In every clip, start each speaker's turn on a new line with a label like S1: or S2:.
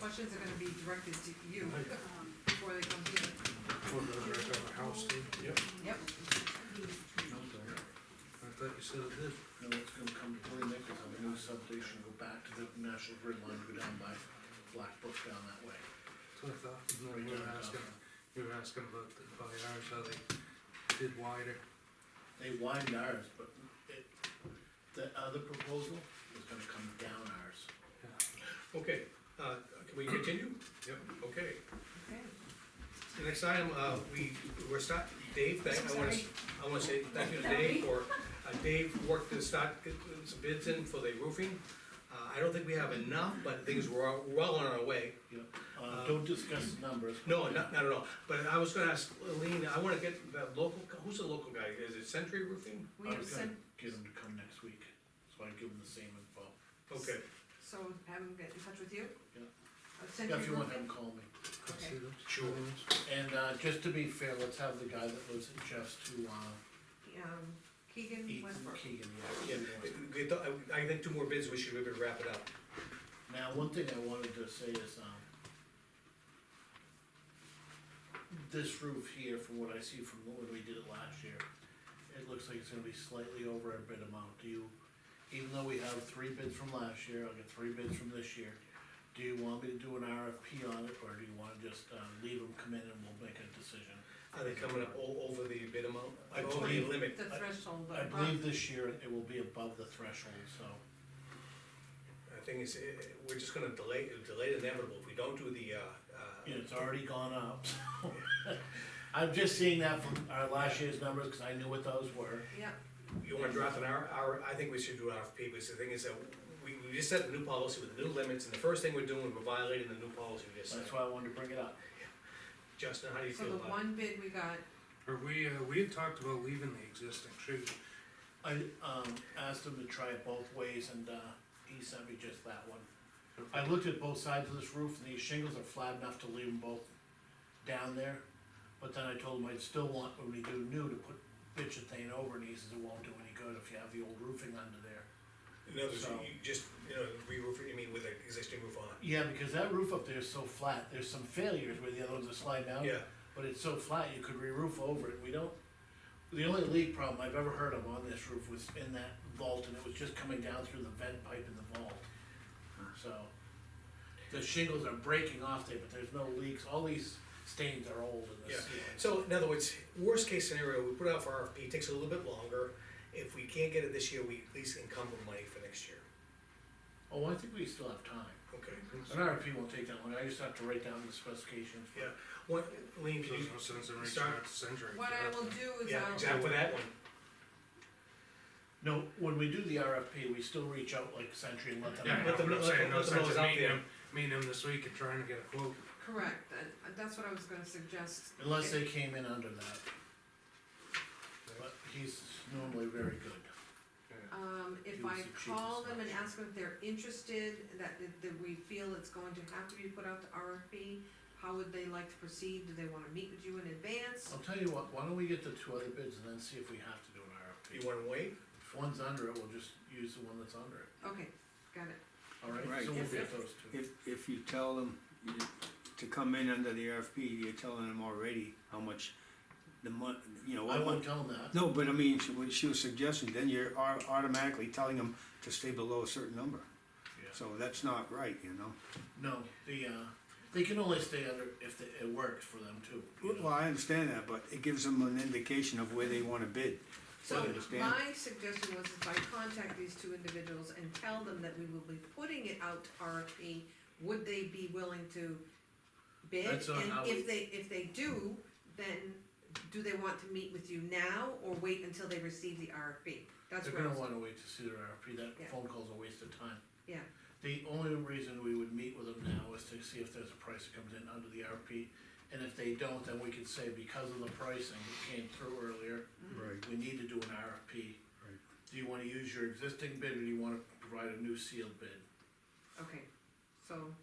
S1: questions are gonna be directed to you, um, before they come here.
S2: Before the wreck of a house, too. Yep.
S1: Yep.
S2: I thought you said it did.
S3: No, it's gonna come to Plain Nichols on the new substation, go back to the national grid line, go down by Black Brook down that way.
S2: So I thought, you know, you were asking, you were asking about the, by ours, how they did wider.
S3: They widened ours, but it, the other proposal is gonna come down ours.
S4: Okay, uh, can we continue?
S2: Yep.
S4: Okay,
S1: Okay.
S4: the next item, uh, we, we're start, Dave, thank, I wanna, s- I wanna say thank you to Dave for, uh, Dave worked to start getting some bids in for the roofing. Uh, I don't think we have enough, but things were all- well on our way.
S3: You know, uh, don't discuss the numbers.
S4: No, not, not at all, but I was gonna ask Lean, I wanna get that local, who's the local guy, is it Century Roofing?
S1: We
S3: I
S1: have
S3: was gonna
S1: sent,
S3: get him to come next week, so I give him the same info.
S4: Okay,
S1: so have them get in touch with you?
S3: Yeah.
S1: I've sent
S3: Yeah, If you
S1: you
S3: want, have
S1: roofing.
S3: him call me.
S2: I see those.
S4: Sure.
S3: And, uh, just to be fair, let's have the guy that lives at Jeff's to, uh,
S1: um, Keegan
S3: Ethan
S1: Westbrook.
S3: Keegan,
S4: yeah,
S3: yeah.
S4: we thought- I, I think two more bids, we should maybe wrap it up.
S3: Now, one thing I wanted to say is, um, this roof here, from what I see from when we did it last year, it looks like it's gonna be slightly over our bid amount, do you, even though we have three bids from last year, I'll get three bids from this year, do you want me to do an RFP on it, or do you wanna just, uh, leave them come in and we'll make a decision?
S4: Are they coming up o- over the bid amount,
S3: I
S4: over the
S3: believe-
S4: limit?
S1: The threshold,
S3: I
S1: but
S3: believe this year it will be above the threshold, so,
S4: The thing is, eh, eh, we're just gonna delay, delay the inevitable, if we don't do the, uh, uh,
S3: yeah, it's already gone up, so. I'm just seeing that from our last year's numbers, cause I knew what those were.
S1: yeah,
S4: you wanna draft an R, R, I think we should do an RFP, because the thing is that we, we just set a new policy with new limits, and the first thing we're doing, we're violating the new policy we just set.
S3: That's why I wanted to bring it up.
S4: Justin, how do you
S1: so
S4: feel
S1: the
S4: about it?
S1: one bid we got,
S2: Are we, uh, we had talked about leaving the existing chute.
S3: I, um, asked him to try it both ways and, uh, he sent me just that one. I looked at both sides of this roof and these shingles are flat enough to leave them both down there. But then I told him I'd still want, when we do new, to put bitchethane over and he says it won't do any good if you have the old roofing under there.
S4: In other words,
S3: So-
S4: you just, you know, re-roof, it, you mean with an existing roof on
S3: Yeah, because that roof up there is so flat, there's some failures where the other ones are sliding out.
S4: it? Yeah,
S3: But it's so flat, you could re-roof over it, we don't, the only leak problem I've ever heard of on this roof was in that vault, and it was just coming down through the vent pipe in the vault. So, the shingles are breaking off there, but there's no leaks, all these stains are old in
S4: yeah.
S3: this ceiling.
S4: So in other words, worst case scenario, we put out for RFP, it takes a little bit longer. If we can't get it this year, we at least encumber money for next year.
S3: Oh, I think we still have time,
S4: Okay.
S3: an RFP won't take that long, I just have to write down the specifications.
S4: Yeah, what, Lean,
S2: There's
S4: can you
S2: no sense in reaching
S4: start-
S2: out to Century.
S1: what I will do is
S4: Yeah,
S1: I'll,
S4: exactly, that one.
S3: No, when we do the RFP, we still reach out like Century and let them
S2: Yeah, I
S3: know.
S2: know
S4: Let them
S2: what
S4: know-
S2: I'm
S4: let
S2: saying,
S4: them-
S2: no
S4: let them know
S2: sense
S4: it's
S2: in
S4: out
S2: meeting
S4: there.
S2: him, meeting him this week and trying to get a quote.
S1: correct, uh, that's what I was gonna suggest,
S3: Unless they came in under that. But he's normally very good.
S1: Um, if
S3: He was
S1: I
S3: the cheapest
S1: call them and
S3: option.
S1: ask them if they're interested, that, that- that we feel it's going to have to be put out to RFP, how would they like to proceed? Do they wanna meet with you in advance?
S3: I'll tell you what, why don't we get the two other bids and then see if we have to do an RFP?
S4: You wanna wait?
S3: If one's under it, we'll just use the one that's under it,
S1: Okay, got it.
S3: alright?
S5: Right.
S3: So we'll
S1: Yes,
S3: get
S1: yes.
S3: those two.
S5: If, if you tell them you- to come in under the RFP, you're telling them already how much the month, you know,
S3: I
S5: what
S3: won't
S5: month.
S3: tell them that.
S5: No, but I mean, she, what she was suggesting, then you're au- automatically telling them to stay below a certain number.
S3: Yeah.
S5: So that's not right, you know?
S3: No, the, uh, they can only stay under if the- it works for them too. you know?
S5: Well, I understand that, but it gives them an indication of where they wanna bid.
S1: So
S5: understand.
S1: my suggestion was if I contact these two individuals and tell them that we will be putting it out to RFP, would they be willing to bid?
S3: That's on how
S1: And
S3: we-
S1: if they, if they do, then do they want to meet with you now or wait until they receive the RFP? That's
S3: They're
S1: where I
S3: gonna
S1: was,
S3: wanna wait to see their RFP,
S1: Yeah.
S3: that phone call's a waste of time.
S1: Yeah.
S3: The only reason we would meet with them now is to see if there's a price that comes in under the RFP, and if they don't, then we could say because of the pricing that came through earlier,
S5: Right.
S3: we need to do an RFP.
S5: Right.
S3: Do you wanna use your existing bid, or do you wanna provide a new sealed bid?
S1: okay, so,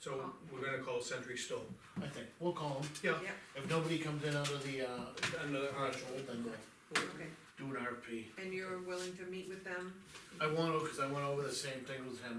S4: So we're gonna call Century Stone.
S3: I think, we'll call them,
S4: Yeah,
S1: yeah,
S3: if nobody comes in under the, uh,
S4: another
S3: threshold, then we'll
S1: okay.
S3: do an RFP.
S1: And you're willing to meet with them
S3: I want, to, cause I went over the same thing with him,